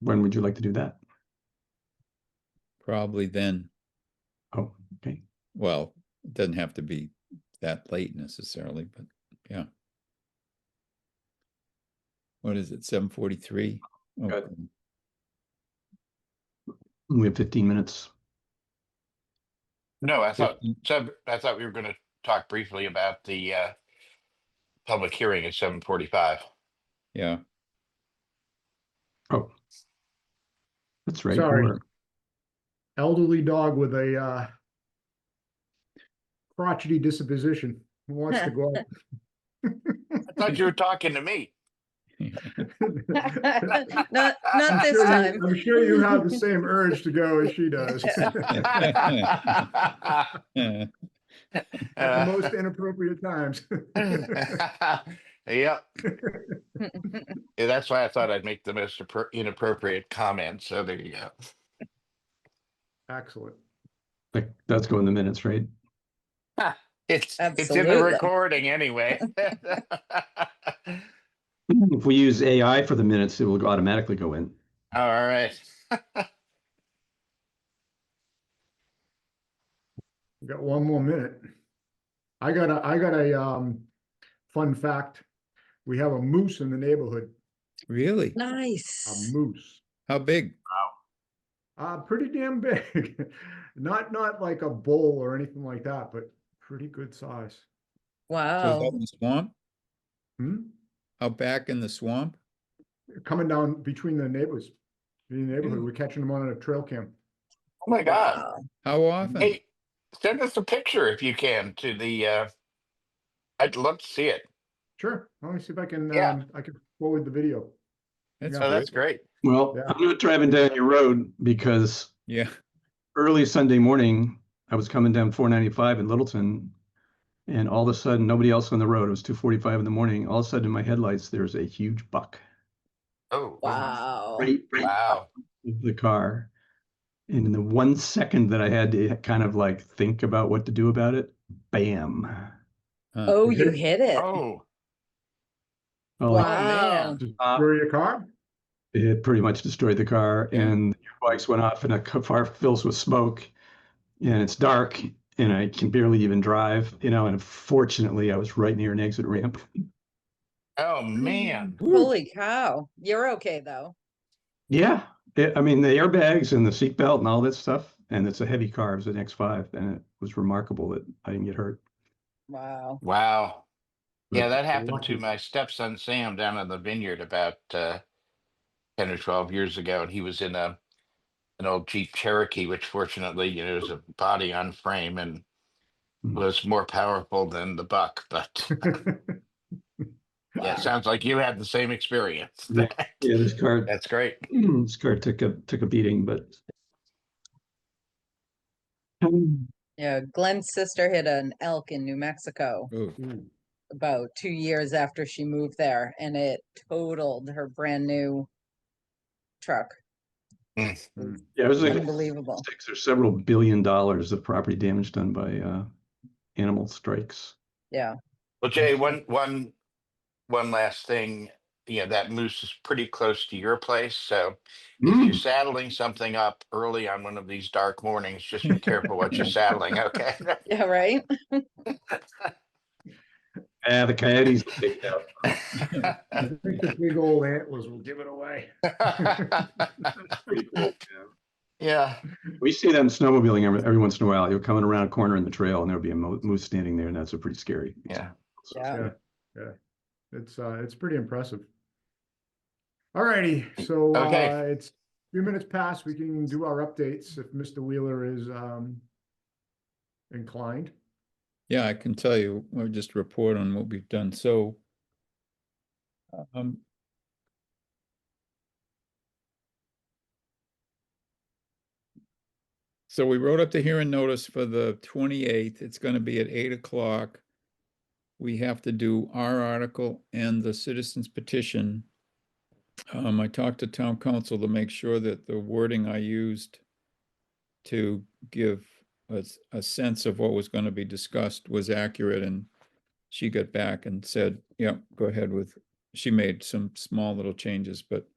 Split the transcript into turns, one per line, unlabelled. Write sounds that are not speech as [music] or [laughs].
When would you like to do that?
Probably then,
Oh, okay.
well, it doesn't have to be that late necessarily, but yeah. What is it, seven forty-three?
Got We have fifteen minutes.
No, I thought, so I thought we were gonna talk briefly about the uh. Public hearing at seven forty-five.
Yeah,
Oh. That's right.
Sorry.
we're-
elderly dog with a uh crotchety disposition who wants to [laughs] go
I thought you were talking to me.
out.
Not, not
I'm
this
sure you-
time.
I'm sure you have the same urge to go as she
[laughs]
does. [laughs] At
Eh,
the most inappropriate
[laughs]
times.
Yep, yeah, that's why I thought I'd make the most appro- inappropriate comment, so there you go.
Excellent.
Like, that's going in the minutes, right? [clears throat]
It's, it's in the
Absolutely.
recording anyway.
If we use AI for the minutes, it will automatically go in.
All right,
We've got one more minute. I got a, I got a um fun fact. We have a moose in the neighborhood,
[laughs] really?
a
[laughs] Nice.
moose.
How big?
Uh, pretty damn big. [laughs] Not, not like a bull or anything like that, but pretty good size.
So it's out
Wow.
in the
Oh.
Swamp,
Hmm?
out back in the swamp?
coming down between the neighbors, between the neighborhood, we're catching them on a trail cam.
oh my god,
Wow.
How often?
hey, send us a picture if you can to the uh. I'd love to see it,
Sure, let me see if I can,
Yeah.
um, I can forward the video.
That's
yeah.
oh, that's
great,
great.
Well,
Yeah.
I'm not driving down your road because
yeah,
early Sunday morning, I was coming down four ninety-five in Littleton. And all of a sudden, nobody else on the road. It was two forty-five in the morning. All of a sudden, in my headlights, there's a huge buck
Oh.
Wow.
right, right
Wow.
of the car. And in the one second that I had to kind of like think about what to do about it, bam.
huh,
Oh, you hit it.
Oh,
Well, like,
Wow.
Just
Uh,
throw your car? [laughs]
It pretty much destroyed the car,
Yeah.
and the bikes went off, and the ca- car fills with smoke, and it's dark, and I can barely even drive, you know. And fortunately, I was right near an exit ramp.
oh, man.
Holy cow. You're okay, though.
Yeah, it, I mean the airbags and the seatbelt and all that stuff, and it's a heavy car. It was an X5, and it was remarkable that I didn't get hurt.
Wow.
Wow. Yeah,
But
that happened to
lucky.
my stepson Sam down in the vineyard about uh, ten or twelve years ago, and he was in a an old Jeep Cherokee, which fortunately, you know, is a body on frame and
Mhm.
was more powerful than the buck. [laughs] But
Hmm,
yeah, sounds like you had the same experience.
Yeah. Yeah, this car, [clears throat]
That's great.
this car took a took a beating, but. Um,
Yeah, Glenn's sister hit an elk in New Mexico
ooh,
Ooh,
about two years after she moved there, and it totaled her brand new truck.
Yeah, it was like
Unbelievable.
six or several billion dollars of property damage done by uh, animal strikes.
Yeah. [laughs]
Well, Jay, one one one last thing. You know, that moose is pretty close to your place, so if
Mm.
you're saddling something up early on one of these dark mornings, just be careful what you're saddling, okay? [laughs]
Yeah, right?
Ah, the coyotes picked out.
I think the big old antlers will give it away.
Pretty cool.
Yeah,
We see them snowmobiling every, every once in a while. You're coming around a corner in the trail, and there'll be a mo- moose standing there, and that's a pretty scary.
Yeah.
Yeah.
Yeah, yeah. It's, uh, it's pretty impressive. All righty. so,
Okay.
uh, it's a few minutes past, we can do our updates if Mr. Wheeler is, um, inclined.
yeah, I can tell you, we'll just report on what we've done, so. Um, So we wrote up the hearing notice for the twenty-eighth. It's gonna be at eight o'clock. We have to do our article and the citizens petition. Um, I talked to town council to make sure that the wording I used to give us a sense of what was gonna be discussed was accurate and she got back and said, yeah, go ahead with, she made some small little changes, but